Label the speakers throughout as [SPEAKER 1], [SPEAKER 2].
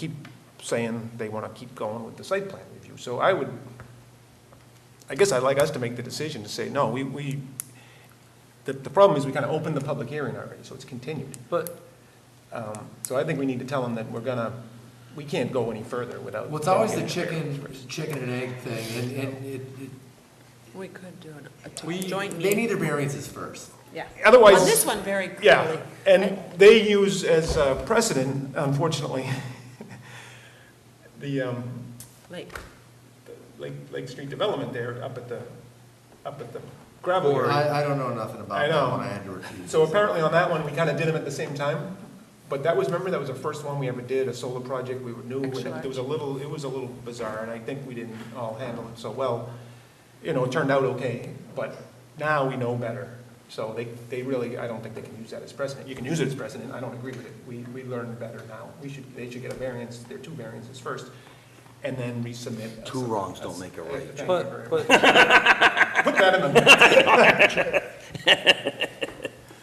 [SPEAKER 1] keep saying they want to keep going with the site plan review. So I would, I guess I'd like us to make the decision to say, no, we, we, the, the problem is we kind of opened the public hearing already, so it's continued.
[SPEAKER 2] But
[SPEAKER 1] Um, So I think we need to tell them that we're gonna, we can't go any further without.
[SPEAKER 2] well, it's always the
[SPEAKER 1] getting a variance
[SPEAKER 2] chicken,
[SPEAKER 1] first.
[SPEAKER 2] chicken and egg thing, and, and it, it-
[SPEAKER 3] We could do it- a
[SPEAKER 2] we,
[SPEAKER 3] t- joint
[SPEAKER 2] they
[SPEAKER 3] meeting.
[SPEAKER 2] need their variances first.
[SPEAKER 3] Yeah.
[SPEAKER 1] Otherwise-
[SPEAKER 3] On this one, very clearly.
[SPEAKER 1] Yeah, and they use as a precedent, unfortunately, the, um,
[SPEAKER 3] Like,
[SPEAKER 1] the Lake, Lake Street Development there up at the, up at the gravel area.
[SPEAKER 2] I, I don't know nothing
[SPEAKER 1] I
[SPEAKER 2] about
[SPEAKER 1] know.
[SPEAKER 2] that one, I had to recuse.
[SPEAKER 1] So apparently on that one, we kind of did them at the same time, but that was, remember, that was the first one we ever did, a solar project, we were new, and
[SPEAKER 3] Excellent.
[SPEAKER 1] it was a little, it was a little bizarre, and I think we didn't all handle it so well. You know, it turned out okay, but now we know better, so they, they really, I don't think they can use that as precedent. You can use it as precedent, I don't agree with it, we, we learned better now. We should, they should get a variance, their two variances first, and then resubmit. a-
[SPEAKER 4] Two wrongs don't make a right, Jim.
[SPEAKER 1] Thank you very
[SPEAKER 5] But,
[SPEAKER 1] much.
[SPEAKER 5] but,
[SPEAKER 1] Put that in the.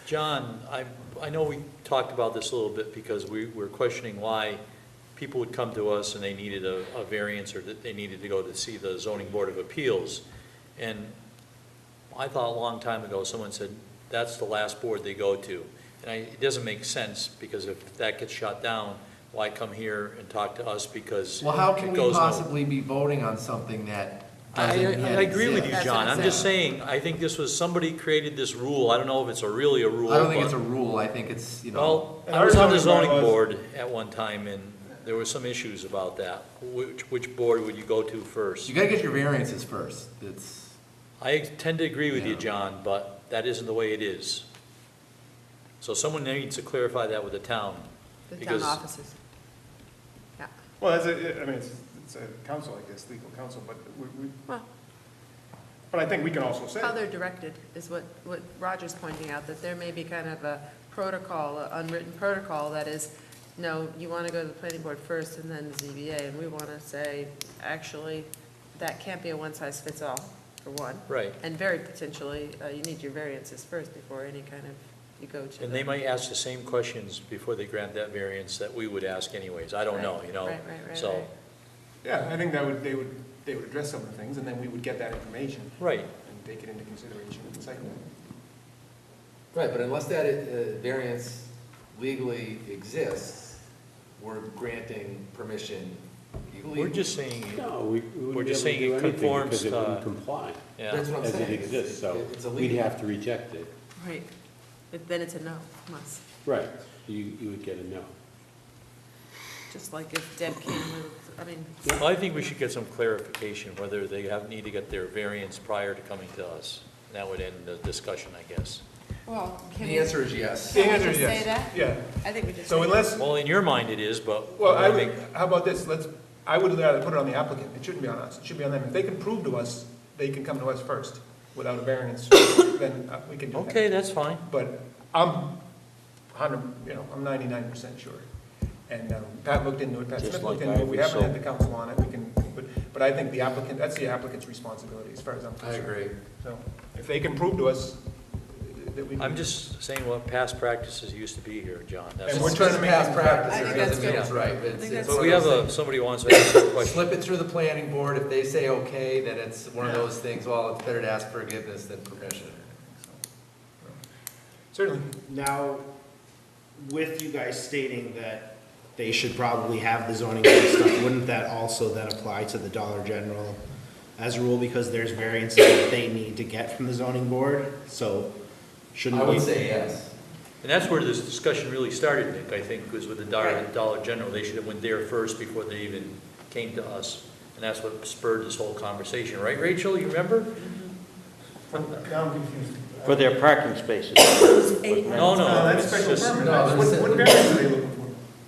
[SPEAKER 5] John, I, I know we talked about this a little bit because we were questioning why people would come to us and they needed a, a variance or that they needed to go to see the zoning board of appeals. And I thought a long time ago, someone said, that's the last board they go to. And I, it doesn't make sense because if that gets shot down, why come here and talk to us because
[SPEAKER 2] Well, how can
[SPEAKER 5] it
[SPEAKER 2] we
[SPEAKER 5] goes no-
[SPEAKER 2] possibly be voting on something that doesn't
[SPEAKER 5] I,
[SPEAKER 2] yet
[SPEAKER 5] I agree with you,
[SPEAKER 2] exist?
[SPEAKER 5] John. I'm just
[SPEAKER 2] saying.
[SPEAKER 5] saying, I think this was, somebody created this rule. I don't know if it's a really a rule.
[SPEAKER 2] I don't think it's
[SPEAKER 5] but-
[SPEAKER 2] a rule, I think it's, you know,
[SPEAKER 5] Well,
[SPEAKER 1] And
[SPEAKER 5] I was on the
[SPEAKER 1] our zoning
[SPEAKER 5] zoning
[SPEAKER 1] bylaws-
[SPEAKER 5] board at one time, and there were some issues about that. Which, which board would you go to first?
[SPEAKER 2] you gotta get your variances first, it's,
[SPEAKER 5] I tend to agree with you,
[SPEAKER 2] Yeah.
[SPEAKER 5] John, but that isn't the way it is. So someone needs to clarify that with the town.
[SPEAKER 3] the town
[SPEAKER 5] because-
[SPEAKER 3] offices. Yeah.
[SPEAKER 1] Well, as a, I mean, it's, it's a council, I guess, legal council, but we, we,
[SPEAKER 3] Well,
[SPEAKER 1] but I think we can also say,
[SPEAKER 3] how they're directed is what, what Roger's pointing out, that there may be kind of a protocol, a unwritten protocol that is, no, you want to go to the planning board first and then the ZBA, and we want to say, actually, that can't be a one-size-fits-all, for one.
[SPEAKER 5] Right.
[SPEAKER 3] And very potentially, uh, you need your variances first before any kind of, you go to.
[SPEAKER 5] And
[SPEAKER 3] the-
[SPEAKER 5] they might ask the same questions before they grant that variance that we would ask anyways. I don't know, you know?
[SPEAKER 3] Right, right, right,
[SPEAKER 5] So,
[SPEAKER 3] right.
[SPEAKER 1] yeah, I think that would, they would, they would address some of the things, and then we would get that information
[SPEAKER 5] right.
[SPEAKER 1] and take it into consideration in the site plan.
[SPEAKER 6] Right, but unless that uh, variance legally exists, we're granting permission illegally.
[SPEAKER 5] We're just saying,
[SPEAKER 7] No, we we
[SPEAKER 5] We're
[SPEAKER 7] wouldn't be
[SPEAKER 5] just
[SPEAKER 7] able to
[SPEAKER 5] saying it
[SPEAKER 7] do anything
[SPEAKER 5] conforms
[SPEAKER 7] because it
[SPEAKER 5] to-
[SPEAKER 7] wouldn't comply
[SPEAKER 5] yeah.
[SPEAKER 6] That's what I'm
[SPEAKER 7] as
[SPEAKER 6] saying.
[SPEAKER 7] it
[SPEAKER 6] It's-
[SPEAKER 7] exists, so
[SPEAKER 6] It's
[SPEAKER 7] we'd
[SPEAKER 6] illegal.
[SPEAKER 7] have to reject it.
[SPEAKER 3] Right, But then it's a no, must,
[SPEAKER 7] Right, you, you would get a no.
[SPEAKER 3] just like if Deb came with, I mean,
[SPEAKER 5] Well, I think we should get some clarification whether they have, need to get their variance prior to coming to us. That would end the discussion, I guess.
[SPEAKER 3] well, can
[SPEAKER 6] The
[SPEAKER 3] we,
[SPEAKER 6] answer is yes.
[SPEAKER 3] Can we just say that?
[SPEAKER 1] Yeah,
[SPEAKER 3] I think we just.
[SPEAKER 1] so
[SPEAKER 3] say-
[SPEAKER 1] unless,
[SPEAKER 5] Well, in your mind it is, but.
[SPEAKER 1] well, I
[SPEAKER 5] think
[SPEAKER 1] would, how about this, let's, I would rather put it on the applicant, it shouldn't be on us, it should be on them. If they can prove to us, they can come to us first without a variance, then uh, we can do that.
[SPEAKER 5] Okay, that's fine.
[SPEAKER 1] But I'm hundred, you know, I'm ninety-nine percent sure. And um, Pat looked into it, Pat
[SPEAKER 4] Just
[SPEAKER 1] Smith
[SPEAKER 4] like
[SPEAKER 1] looked into
[SPEAKER 4] I
[SPEAKER 1] it, we
[SPEAKER 4] was
[SPEAKER 1] haven't had the
[SPEAKER 4] sold.
[SPEAKER 1] council on it, we can, but, but I think the applicant, that's the applicant's responsibility, as far as I'm
[SPEAKER 2] I
[SPEAKER 1] concerned.
[SPEAKER 2] agree.
[SPEAKER 1] So, if they can prove to us that we.
[SPEAKER 5] I'm just saying what past practices used to be here, John. That's-
[SPEAKER 1] And we're trying to make.
[SPEAKER 2] Past
[SPEAKER 3] I
[SPEAKER 2] practice,
[SPEAKER 3] think
[SPEAKER 2] it
[SPEAKER 3] that's
[SPEAKER 2] doesn't mean
[SPEAKER 3] good.
[SPEAKER 2] it's right, but
[SPEAKER 3] I
[SPEAKER 2] it's. it's
[SPEAKER 3] think that's
[SPEAKER 5] But
[SPEAKER 2] one
[SPEAKER 5] we
[SPEAKER 2] of
[SPEAKER 5] have
[SPEAKER 2] those
[SPEAKER 5] a, somebody wants to ask a
[SPEAKER 2] things.
[SPEAKER 5] question.
[SPEAKER 2] Slip it through the planning board, if they say okay, then it's one of those things, well, it's better to ask forgiveness than permission.
[SPEAKER 1] Certainly.
[SPEAKER 8] Now, with you guys stating that they should probably have the zoning board stuff, wouldn't that also then apply to the Dollar General as a rule because there's variances that they need to get from the zoning board? So shouldn't
[SPEAKER 6] I
[SPEAKER 8] we?
[SPEAKER 6] would say yes.
[SPEAKER 5] And that's where this discussion really started, Nick, I think, was with the Dollar,
[SPEAKER 3] Right.
[SPEAKER 5] Dollar General. They should have went there first before they even came to us. And that's what spurred this whole conversation, right, Rachel? You remember?
[SPEAKER 1] Now I'm confused.
[SPEAKER 4] For their parking spaces.
[SPEAKER 5] No, no.
[SPEAKER 1] No, that's
[SPEAKER 5] it's
[SPEAKER 1] special
[SPEAKER 5] just-
[SPEAKER 1] permit.
[SPEAKER 2] no,
[SPEAKER 1] What,
[SPEAKER 2] there's-
[SPEAKER 1] what variance are they looking for?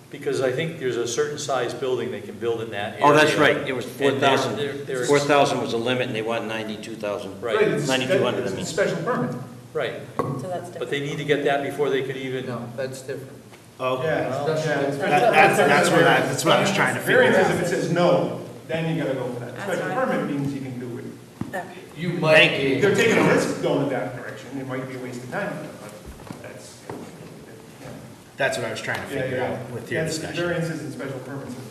[SPEAKER 5] Because I think there's a certain size building they can build in that area.
[SPEAKER 4] Oh, that's right, it was
[SPEAKER 5] And they're-
[SPEAKER 4] 4,000.
[SPEAKER 5] they're- they're-
[SPEAKER 4] 4,000 was the limit, and they want 92,000.
[SPEAKER 5] Right.
[SPEAKER 1] it's-
[SPEAKER 4] 9,200, I mean.
[SPEAKER 1] It's a special permit.
[SPEAKER 5] Right,
[SPEAKER 3] So that's
[SPEAKER 5] but
[SPEAKER 3] different.
[SPEAKER 5] they need to get that before they could even,
[SPEAKER 2] No, that's different.
[SPEAKER 8] Okay.
[SPEAKER 1] Yeah. That's,
[SPEAKER 8] That- that's, that's what I, that's what I was trying to figure
[SPEAKER 1] Variance is
[SPEAKER 8] out.
[SPEAKER 1] if it says no, then you gotta go for that.
[SPEAKER 3] That's
[SPEAKER 1] Special
[SPEAKER 3] right.
[SPEAKER 1] permit means you can do it.
[SPEAKER 6] You might be.
[SPEAKER 1] They're taking a risk going in that direction, it might be a waste of time, but that's.
[SPEAKER 8] That's what I was trying to
[SPEAKER 1] yeah,
[SPEAKER 8] figure out with your
[SPEAKER 1] That's
[SPEAKER 8] discussion.
[SPEAKER 1] Variances and special permits is